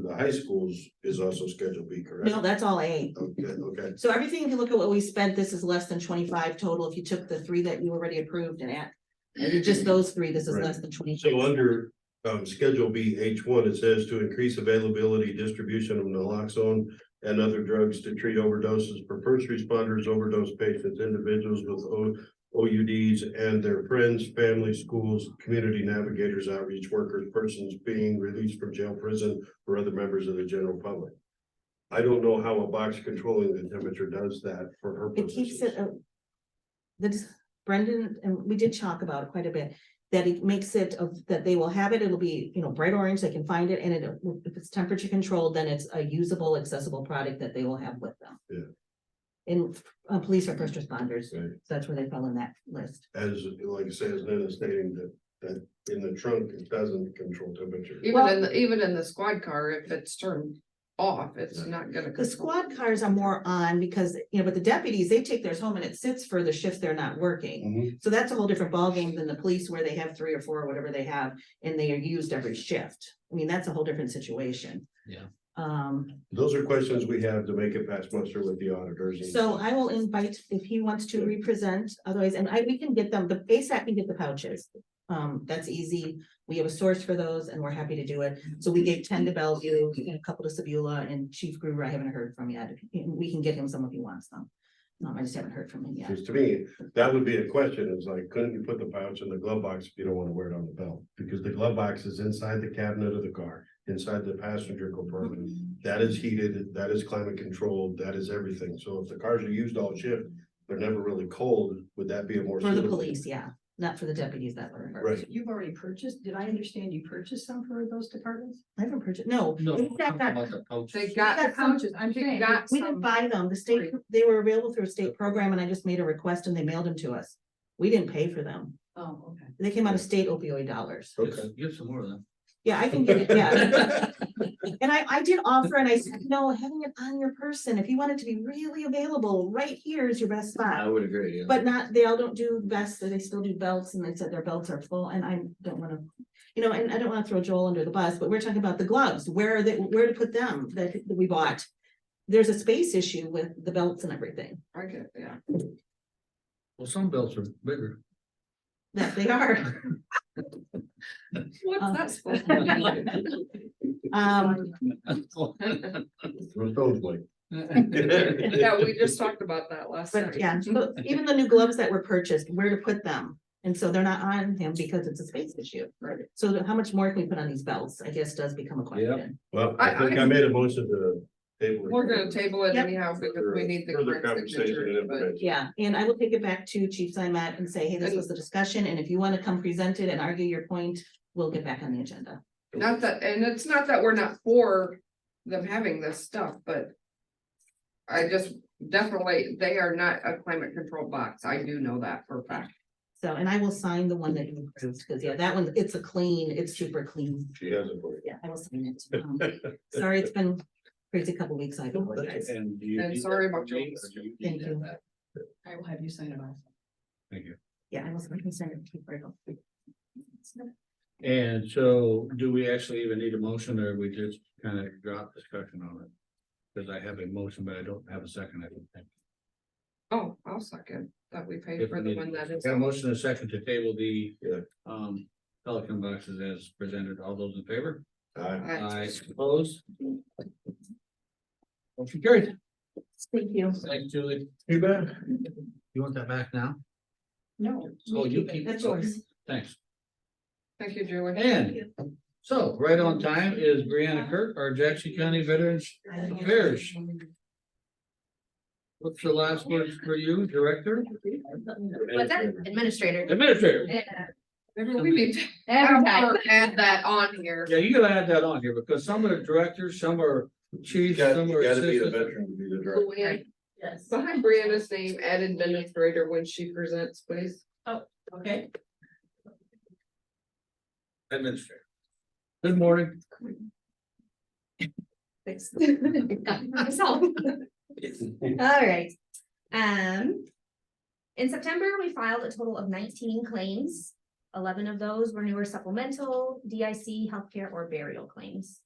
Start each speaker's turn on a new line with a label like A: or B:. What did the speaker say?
A: the high schools is also Schedule B, correct?
B: No, that's all A.
A: Okay, okay,
B: So everything, if you look at what we spent, this is less than twenty-five total. If you took the three that you already approved and add. Just those three, this is
A: Right.
B: less than twenty.
A: so under um Schedule B H one, it says to increase availability, distribution of naloxone. And other drugs to treat overdoses for first responders, overdose patients, individuals with O O U Ds and their friends, family, schools. Community navigators, outreach workers, persons being released from jail, prison, or other members of the general public. I don't know how a box controlling the temperature does that for her
B: It
A: purposes.
B: keeps it. uh, The dis- Brendan, and we did talk about it quite a bit, that it makes it of, that they will have it, it'll be, you know, bright orange, they can find it, and it, if it's temperature controlled, then it's a usable, accessible product that they will have with them. Yeah. And uh, police or first responders, so
A: Right.
B: that's where they fell in that list.
A: as, like I say, as Nina stating that, that in the trunk, it doesn't control temperature.
C: Even in, the even in the squad car, if it's turned off, it's not gonna.
B: The squad cars are more on because, you know, but the deputies, they take theirs home and it sits for the shift they're not working.
A: Mhm.
B: So that's a whole different ballgame than the police where they have three or four, or whatever they have, and they are used every shift. I mean, that's a whole different situation.
D: Yeah.
B: Um,
A: Those are questions we have to make it pass muster with the auditors. and-
B: so I will invite if he wants to represent, otherwise, and I, we can get them, the ASAP can get the pouches. Um, that's easy. We have a source for those and we're happy to do it. So we gave ten to Bellevue, and a couple to Sabula and Chief Gruber, I haven't heard from yet. We can get him some if he wants them. Um, I just haven't heard from him yet.
A: Because to me, that would be a question, is like, couldn't you put the pouch in the glove box if you don't wanna wear it on the belt? Because the glove box is inside the cabinet of the car, inside the passenger compartment.
B: Mm-hmm.
A: That is heated, that is climate controlled, that is everything, so if the cars are used all shift, they're never really cold, would that be a more?
B: For the
A: suitable-
B: police, yeah, not for the deputies that were. hurt.
A: Right.
E: You've already purchased, did I understand you purchased some for those departments?
B: I haven't purchased, no.
D: No,
B: in fact, I-
C: They
D: I
C: got the
B: got some-
C: pouches, I'm
E: they
C: saying, got
B: We didn't
C: some,
B: buy them. The state, they were available through a state program and I just made a request and they mailed them to us. We didn't pay for them.
E: Oh, okay.
B: They came out of state opioid dollars.
A: Okay.
D: Give some more of them.
B: Yeah, I can get it, yeah. And I, I did offer and I said, no, having it on your person, if you want it to be really available, right here is your best
D: I
B: spot.
D: would agree, yeah.
B: But not, they all don't do vests, they still do belts and they said their belts are full and I don't wanna, you know, and I don't wanna throw Joel under the bus, but we're talking about the gloves. Where are they, where to put them that that we bought? There's a space issue with the belts and everything.
C: I get, yeah.
D: Well, some belts are bigger.
B: That they are.
C: What's
B: Um,
C: that supposed to
B: Um,
A: Those those, like,
C: be? Yeah, we just talked about that last night.
B: but yeah, so even the new gloves that were purchased, where to put them? And so they're not on him because it's a space issue.
C: Right.
B: So how much more can we put on these belts? I guess does become a question.
A: Well, I
C: I-
A: think I made a motion to table. it.
C: We're gonna table it
B: Yep.
C: anyhow because we need the
A: Further
C: correct
A: conversation and
C: signature, but
A: information.
B: Yeah, and I will take it back to Chief Simat and say, hey, this was the discussion, and if you want to come present it and argue your point, we'll get back on the agenda.
C: not that, and it's not that we're not for them having this stuff, but. I just definitely, they are not a climate control box. I do know that for a fact.
B: So, and I will sign the one that you approved, because yeah, that one, it's a clean, it's super clean.
A: She has it for you.
B: Yeah, I will sign it. Um, Sorry, it's been crazy couple weeks, I apologize.
D: And do you
C: And
D: need
C: sorry
D: that
C: about
D: from me,
C: your-
D: or do you
B: Thank
D: need that
B: you.
D: back?
E: I will have you sign it off.
D: Thank you.
B: Yeah, I was concerned.
D: And so do we actually even need a motion or we just kind of drop discussion on it? Cause I have a motion, but I don't have a second, I don't think.
C: Oh, I'll second that we paid
D: If
C: for
D: we
C: the
D: need-
C: one that is.
D: Got a motion and a second to table the
A: Yeah.
D: um Pelican boxes as presented. All those in favor?
A: Aye.
D: I suppose. Motion carried.
B: Thank you.
D: Thanks, Julie.
A: You bet.
D: You want that back now?
E: No.
D: So you keep.
B: That's yours.
D: Thanks.
C: Thank you, Julie.
D: And so right on time is Brianna Kirk, our Jackson County Veterans Affairs. What's the last words for you, Director?
F: What's that? Administrator.
D: Administrator.
F: Yeah,
C: Remember, we need to
F: Every
C: have
F: time.
C: her add that on here.
D: Yeah, you gotta add that on here because some are directors, some are
A: You
D: chiefs,
A: gotta,
D: some are
A: you gotta be the
D: assistants.
A: veteran to be the director.
C: Luann,
F: Yes.
C: Behind Brianna's name, add administrator when she presents, please.
F: Okay.
D: Administrator. Good morning.
F: Thanks. Got myself. All right. Um. In September, we filed a total of nineteen claims. Eleven of those were newer supplemental, DIC, healthcare, or burial claims.